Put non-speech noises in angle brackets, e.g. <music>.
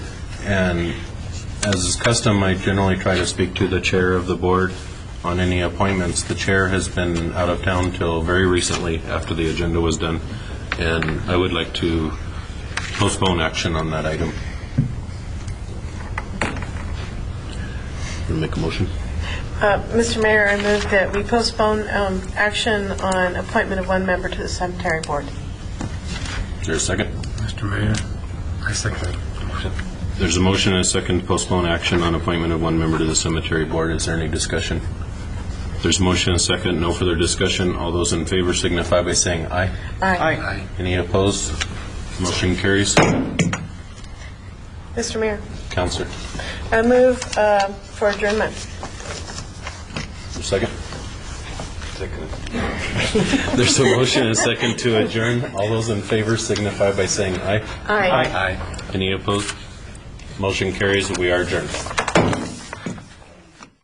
And as is custom, I generally try to speak to the chair of the board on any appointments. The chair has been out of town till very recently, after the agenda was done, and I would like to postpone action on that item. Make a motion? Uh, Mr. Mayor, I move that we postpone um, action on appointment of one member to the cemetery board. Is there a second? Mr. Mayor, I second. There's a motion and a second to postpone action on appointment of one member to the cemetery board. Is there any discussion? There's a motion and a second, no further discussion. All those in favor signify by saying aye. Aye. Aye. Any opposed? Motion carries. Mr. Mayor, Counselor, I move uh, for adjournment. second? Second. <laughs> There's a motion and a second to adjourn. All those in favor signify by saying aye. Aye. Aye. Any opposed? Motion carries, we are adjourned.